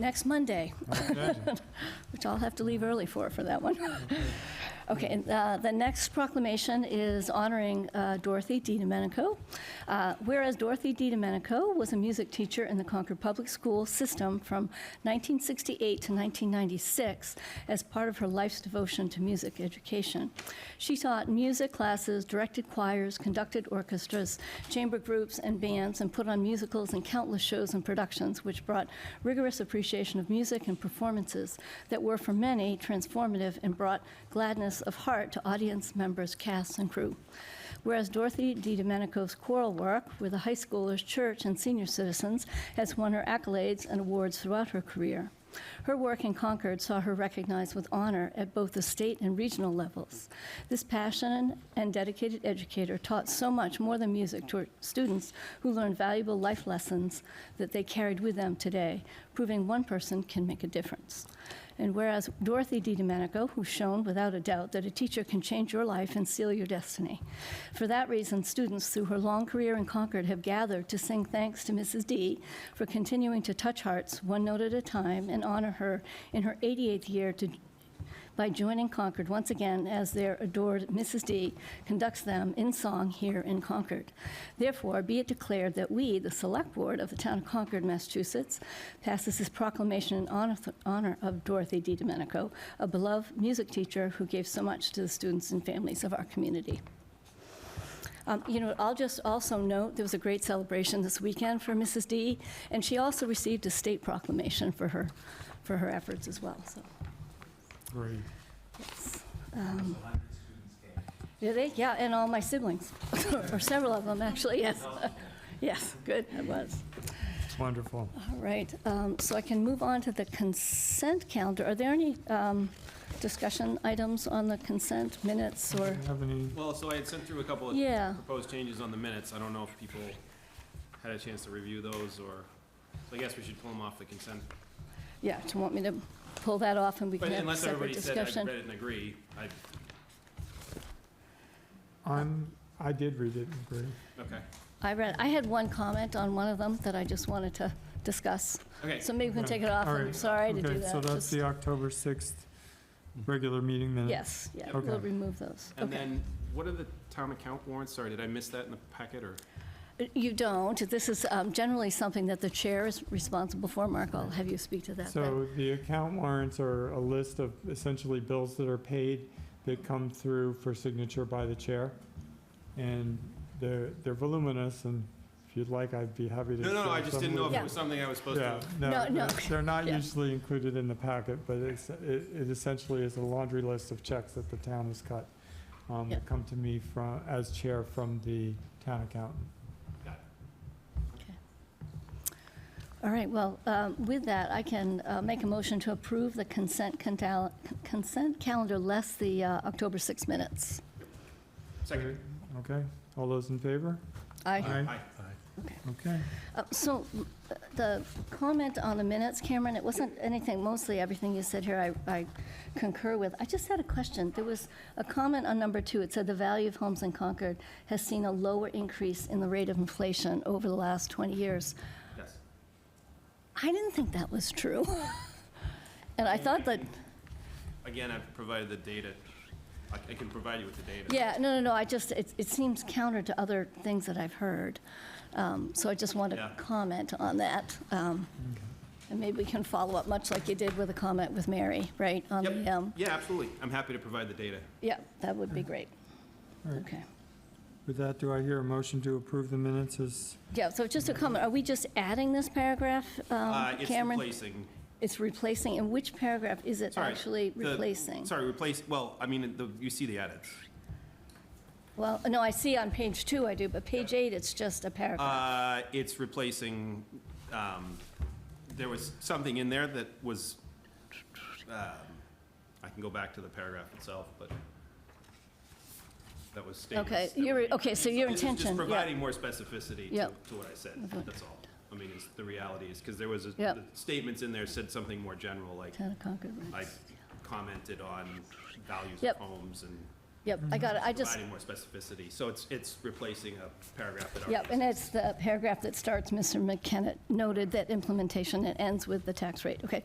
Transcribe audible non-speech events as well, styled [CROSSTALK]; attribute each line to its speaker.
Speaker 1: Next Monday, [LAUGHS] which I'll have to leave early for, for that one. [LAUGHS] Okay, and, uh, the next proclamation is honoring uh, Dorothy D. Domenico. Uh, Whereas Dorothy D. Domenico was a music teacher in the Concord Public School system from 1968 to 1996 as part of her life's devotion to music education. She taught music classes, directed choirs, conducted orchestras, chamber groups, and bands, and put on musicals and countless shows and productions, which brought rigorous appreciation of music and performances that were, for many, transformative and brought gladness of heart to audience members, cast, and crew. Whereas Dorothy D. Domenico's choral work with the high schoolers, church, and senior citizens has won her accolades and awards throughout her career. Her work in Concord saw her recognized with honor at both the state and regional levels. This passionate and dedicated educator taught so much more than music to her students who learned valuable life lessons that they carried with them today, proving one person can make a difference. And whereas Dorothy D. Domenico, who shown without a doubt that a teacher can change your life and seal your destiny. For that reason, students through her long career in Concord have gathered to sing thanks to Mrs. D for continuing to touch hearts one note at a time and honor her in her 88th year to, by joining Concord once again as their adored Mrs. D conducts them in song here in Concord. Therefore, be it declared that we, the Select Board of the Town of Concord, Massachusetts, passes this proclamation in honor- honor of Dorothy D. Domenico, a beloved music teacher who gave so much to the students and families of our community. Um, You know, I'll just also note, there was a great celebration this weekend for Mrs. D, and she also received a state proclamation for her, for her efforts as well, so.
Speaker 2: Great.
Speaker 1: yes. Um, Did they? Yeah, and all my siblings, [LAUGHS] or several of them, actually, yes. [LAUGHS] Yes, good, I was.
Speaker 2: It's wonderful.
Speaker 1: All right, um, so I can move on to the consent calendar. Are there any um, discussion items on the consent minutes
Speaker 2: Do
Speaker 1: or?
Speaker 2: you have any-
Speaker 3: Well, so I had sent through a couple
Speaker 1: Yeah.
Speaker 3: of proposed changes on the minutes. I don't know if people had a chance to review those, or, so I guess we should pull them off the consent.
Speaker 1: Yeah, do you want me to pull that off and we
Speaker 3: But
Speaker 1: can have a
Speaker 3: unless
Speaker 1: separate
Speaker 3: everybody said I
Speaker 1: discussion?
Speaker 3: read it and agree, I,
Speaker 2: I'm, I did read it, and agree.
Speaker 3: okay,
Speaker 1: I read, I had one comment on one of them that I just wanted to discuss.
Speaker 3: okay.
Speaker 1: So maybe we can
Speaker 2: Yeah,
Speaker 1: take it off.
Speaker 2: all
Speaker 1: I'm
Speaker 2: right.
Speaker 1: sorry to do
Speaker 2: Okay,
Speaker 1: that.
Speaker 2: so that's
Speaker 1: Just-
Speaker 2: the October 6th regular meeting minutes.
Speaker 1: Yes, yeah,
Speaker 2: Okay.
Speaker 1: we'll remove those.
Speaker 3: And
Speaker 1: Okay.
Speaker 3: then, what are the town account warrants? Sorry, did I miss that in the packet, or?
Speaker 1: You don't. This is um, generally something that the chair is responsible for. Mark, I'll have you speak to that. then.
Speaker 2: So the account warrants are a list of essentially bills that are paid that come through for signature by the chair. And they're, they're voluminous, and if you'd like, I'd be happy to.
Speaker 3: No, no, no,
Speaker 2: share
Speaker 3: I just
Speaker 2: some
Speaker 3: didn't know
Speaker 2: with
Speaker 3: if it
Speaker 1: Yeah.
Speaker 3: was something I was supposed
Speaker 2: Yeah,
Speaker 3: to.
Speaker 1: No,
Speaker 2: no,
Speaker 1: no. [LAUGHS]
Speaker 2: they're- they're not
Speaker 1: Yeah.
Speaker 2: usually included in the packet, but it's, it it essentially is a laundry list of checks that the town has cut. um,
Speaker 1: Yeah.
Speaker 2: That come to me from, as chair from the town accountant.
Speaker 1: All right, well, um, with that, I can uh, make a motion to approve the consent contal- consent calendar less the uh, October 6 minutes.
Speaker 3: Second.
Speaker 2: Okay, all those in favor?
Speaker 1: Aye.
Speaker 2: Aye.
Speaker 3: Aye.
Speaker 2: Okay,
Speaker 1: Uh, So uh, the comment on the minutes, Cameron, it wasn't anything, mostly everything you said here I- I concur with. I just had a question. There was a comment on number two. It said the value of homes in Concord has seen a lower increase in the rate of inflation over the last 20 years.
Speaker 3: Yes.
Speaker 1: I didn't think that was true. [LAUGHS] And I thought that,
Speaker 3: Again, I've provided the data. I I can provide you with the data.
Speaker 1: yeah, no, no, no, I just, it it seems counter to other things that I've heard. Um, So I just want to
Speaker 3: Yeah.
Speaker 1: comment on that. Um, And maybe we can follow up, much like you did with a comment with Mary, right? on the, um,
Speaker 3: Yep, yeah, absolutely. I'm happy to provide the data.
Speaker 1: Yeah, that would be great.
Speaker 2: All right.
Speaker 1: Okay.
Speaker 2: with that, do I hear a motion to approve the minutes as,
Speaker 1: Yeah, so just a comment, are we just adding this paragraph,
Speaker 3: Uh,
Speaker 1: um,
Speaker 3: It's
Speaker 1: Cameron?
Speaker 3: replacing.
Speaker 1: It's replacing, and which paragraph is it
Speaker 3: Sorry,
Speaker 1: actually
Speaker 3: the-
Speaker 1: replacing?
Speaker 3: Sorry, replace, well, I mean, the- you see the edits.
Speaker 1: Well, no, I see on page two I do, but page eight, it's just a paragraph.
Speaker 3: Uh, It's replacing, um, there was something in there that was, um, I can go back to the paragraph itself, but that was stated.
Speaker 1: Okay,
Speaker 3: that
Speaker 1: you're-
Speaker 3: were made.
Speaker 1: okay, so your
Speaker 3: This is
Speaker 1: intention, yeah.
Speaker 3: just providing more specificity
Speaker 1: Yeah.
Speaker 3: to to what I said, that's all. I mean, it's, the reality is, because there was, a-
Speaker 1: Yeah.
Speaker 3: the statements in there said something more general, like,
Speaker 1: Town of Concord, right.
Speaker 3: I commented on values
Speaker 1: Yep.
Speaker 3: of homes and
Speaker 1: Yep, I got it, I just,
Speaker 3: providing more specificity. So it's, it's replacing a paragraph that already
Speaker 1: yep, and it's the paragraph that starts, Mr. McKenna noted that implementation, it ends with the tax rate. Okay,